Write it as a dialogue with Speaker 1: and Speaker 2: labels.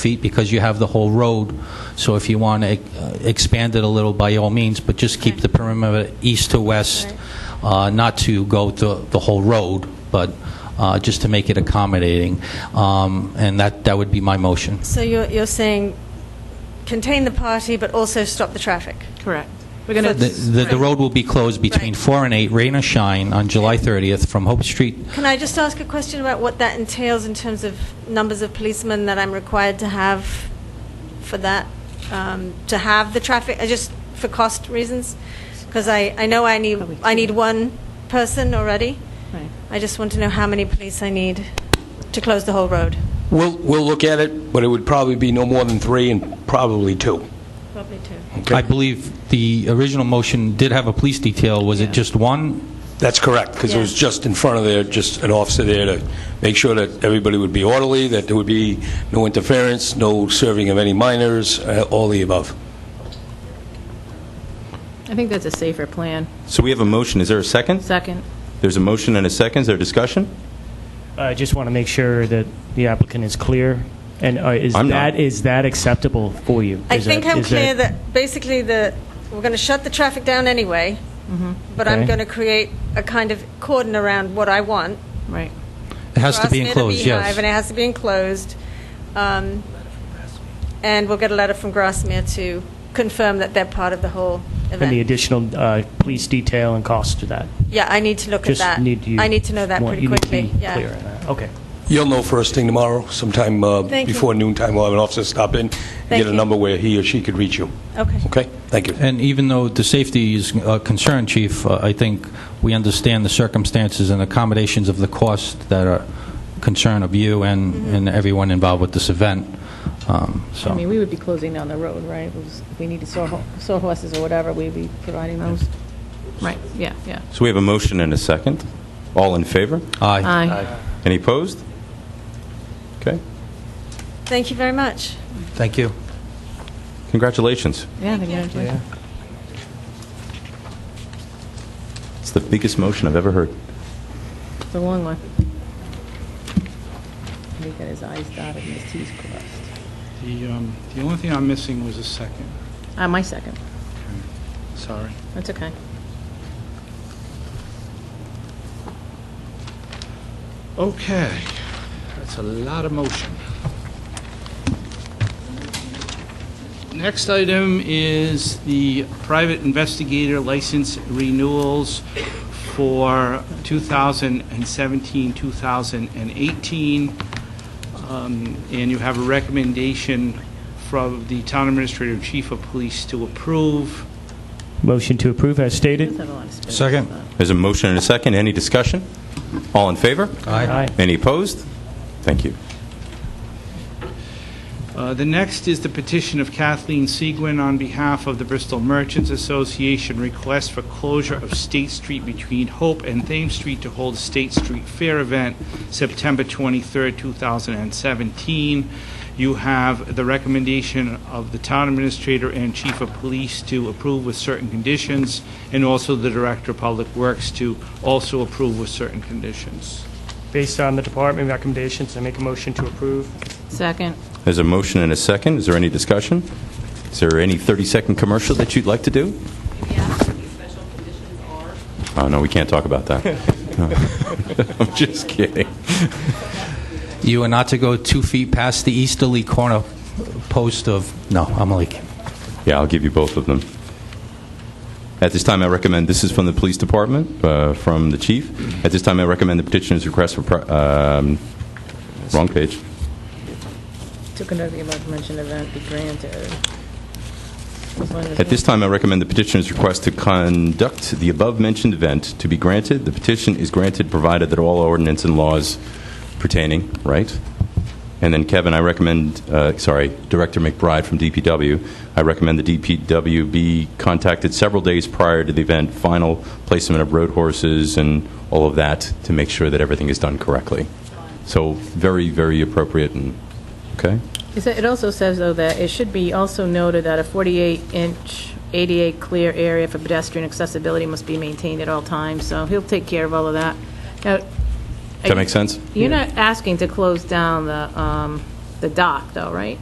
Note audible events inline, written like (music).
Speaker 1: feet because you have the whole road. So if you want to expand it a little, by all means, but just keep the perimeter east to west, uh, not to go to the whole road, but uh, just to make it accommodating. Um, And that, that would be my motion.
Speaker 2: So you're, you're saying contain the party, but also stop the traffic?
Speaker 3: Correct. We're going
Speaker 1: The-
Speaker 3: to,
Speaker 1: The the road will be closed between
Speaker 2: Right.
Speaker 1: 4 and 8, rain or shine, on July 30th from Hope Street.
Speaker 2: Can I just ask a question about what that entails in terms of numbers of policemen that I'm required to have for that, um, to have the traffic, uh, just for cost reasons? Because I, I know I need, I need one person already.
Speaker 3: Right.
Speaker 2: I just want to know how many police I need to close the whole road.
Speaker 4: We'll, we'll look at it, but it would probably be no more than three and probably two.
Speaker 2: Probably two.
Speaker 1: I believe the original motion did have a police detail. Was it just one?
Speaker 4: That's correct, because it was
Speaker 2: Yeah.
Speaker 4: just in front of there, just an officer there to make sure that everybody would be orderly, that there would be no interference, no serving of any minors, uh, all the above.
Speaker 3: I think that's a safer plan.
Speaker 5: So we have a motion. Is there a second?
Speaker 3: Second.
Speaker 5: There's a motion and a second. Is there discussion?
Speaker 6: I just want to make sure that the applicant is clear, and uh, is
Speaker 5: I'm not.
Speaker 6: that, is that acceptable for you?
Speaker 2: I
Speaker 6: Is
Speaker 2: think
Speaker 6: that-
Speaker 2: I'm
Speaker 6: is
Speaker 2: clear that, basically the we're going to shut the traffic down anyway, but I'm
Speaker 6: Okay.
Speaker 2: going to create a kind of cordon around what I want.
Speaker 3: Right.
Speaker 1: It has to be
Speaker 2: Grassmere
Speaker 1: enclosed, yes.
Speaker 2: Beehive, And it has to be enclosed. Um, and we'll get a letter from Grassmere to confirm that they're part of the whole event.
Speaker 6: And the additional uh, police detail and cost to that?
Speaker 2: yeah, I need to look
Speaker 6: Just
Speaker 2: at that.
Speaker 6: need you...
Speaker 2: I need to know that
Speaker 6: want-
Speaker 2: pretty quickly.
Speaker 6: You need to be
Speaker 2: yeah.
Speaker 6: clear on that. Okay.
Speaker 4: You'll know first thing tomorrow, sometime uh,
Speaker 2: Thank you.
Speaker 4: before noontime, we'll have an officer stop in, and
Speaker 2: Thank
Speaker 4: get a
Speaker 2: you.
Speaker 4: number where he or she could reach you.
Speaker 2: Okay.
Speaker 4: Okay? Thank you.
Speaker 1: And even though the safety is a concern, Chief, uh, I think we understand the circumstances and accommodations of the cost that are concern of you and and everyone involved with this event. Um,
Speaker 3: I
Speaker 1: So
Speaker 3: mean, we would be closing down the road, right? It was- If we needed sore horses or whatever, we'd be providing those. Right, yeah, yeah.
Speaker 5: So we have a motion and a second. All in favor?
Speaker 1: Aye.
Speaker 3: Aye.
Speaker 5: Any opposed? Okay.
Speaker 2: Thank you very much.
Speaker 1: Thank you.
Speaker 5: Congratulations.
Speaker 3: Yeah, they're going to do it.
Speaker 5: It's the biggest motion I've ever heard.
Speaker 3: It's a long one. And He got his eyes dotted and his T's crossed.
Speaker 7: The, um, the only thing I'm missing was a second.
Speaker 3: Ah, my second.
Speaker 7: Sorry.
Speaker 3: That's okay.
Speaker 7: Okay. That's a lot of motion. Next item is the private investigator license renewals for 2017, 2018. Um, And you have a recommendation from the town administrator and chief of police to approve.
Speaker 6: Motion to approve as
Speaker 3: Let's
Speaker 6: stated?
Speaker 3: have a lot of space.
Speaker 1: Second.
Speaker 5: There's a motion and a second. Any discussion? All in favor?
Speaker 6: Aye.
Speaker 5: Any opposed? Thank you.
Speaker 7: Uh, The next is the petition of Kathleen Seguin on behalf of the Bristol Merchants Association, request for closure of State Street between Hope and Thames Street to hold a State Street Fair event September 23rd, 2017. You have the recommendation of the town administrator and chief of police to approve with certain conditions, and also the director of public works to also approve with certain conditions.
Speaker 6: Based on the department recommendations, I make a motion to approve.
Speaker 3: Second.
Speaker 5: There's a motion and a second. Is there any discussion? Is there any 30-second commercial that you'd like to do? Oh, no, we can't talk about that. (laughs) I'm just kidding.
Speaker 1: You are not to go two feet past the easterly corner post of, no, I'm only kidding.
Speaker 5: Yeah, I'll give you both of them. At this time, I recommend, this is from the police department, uh, from the chief. At this time, I recommend the petitioner's request for, pri- um, wrong page.
Speaker 3: To conduct the above-mentioned event be granted. As long as
Speaker 5: At this time, I recommend the petitioner's request to conduct the above-mentioned event to be granted. The petition is granted provided that all ordinance and laws pertaining, right? And then Kevin, I recommend, uh, sorry, Director McBride from DPW, I recommend the DPW be contacted several days prior to the event, final placement of road horses and all of that to make sure that everything is done correctly. So very, very appropriate and, okay?
Speaker 3: It sa- it also says, though, that it should be also noted that a 48-inch ADA clear area for pedestrian accessibility must be maintained at all times, so he'll take care of all of that. Now,
Speaker 5: Does that make sense?
Speaker 3: You're not asking to close down the um, the dock, though, right?